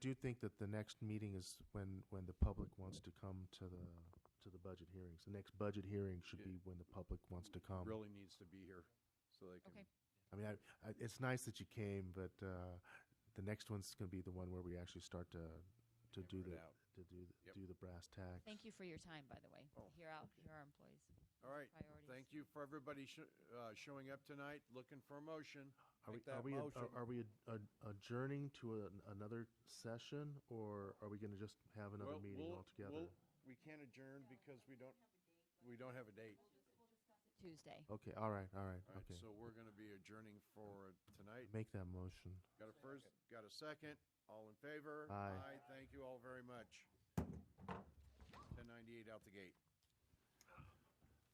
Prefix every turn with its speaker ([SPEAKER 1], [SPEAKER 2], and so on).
[SPEAKER 1] do think that the next meeting is when, when the public wants to come to the, to the budget hearings. The next budget hearing should be when the public wants to come.
[SPEAKER 2] Really needs to be here so they can.
[SPEAKER 3] Okay.
[SPEAKER 1] I mean, I, I, it's nice that you came, but uh, the next one's going to be the one where we actually start to to do the
[SPEAKER 2] Hammer it out.
[SPEAKER 1] to do the,
[SPEAKER 2] Yep.
[SPEAKER 1] do the brass tacks.
[SPEAKER 3] Thank you for your time, by the way.
[SPEAKER 2] Oh.
[SPEAKER 3] Here out, here our employees.
[SPEAKER 2] All right.
[SPEAKER 3] Priorities.
[SPEAKER 2] Thank you for everybody sho- uh, showing up tonight, looking for a motion.
[SPEAKER 1] Are we, are
[SPEAKER 2] Make that
[SPEAKER 1] we, ad-
[SPEAKER 2] motion.
[SPEAKER 1] are, are we ad- ad- adjourning to an another session, or are we going to just have another
[SPEAKER 2] Well,
[SPEAKER 1] meeting
[SPEAKER 2] we'll-
[SPEAKER 1] altogether?
[SPEAKER 2] we'll- We can't adjourn because we don't, we don't have a date.
[SPEAKER 3] Tuesday.
[SPEAKER 1] okay, all right, all right,
[SPEAKER 2] All right,
[SPEAKER 1] okay.
[SPEAKER 2] so we're going to be adjourning for tonight.
[SPEAKER 1] Make that motion.
[SPEAKER 2] Got a first, got a second, all in favor?
[SPEAKER 1] Aye.
[SPEAKER 2] Thank you all very much. 1098 out the gate.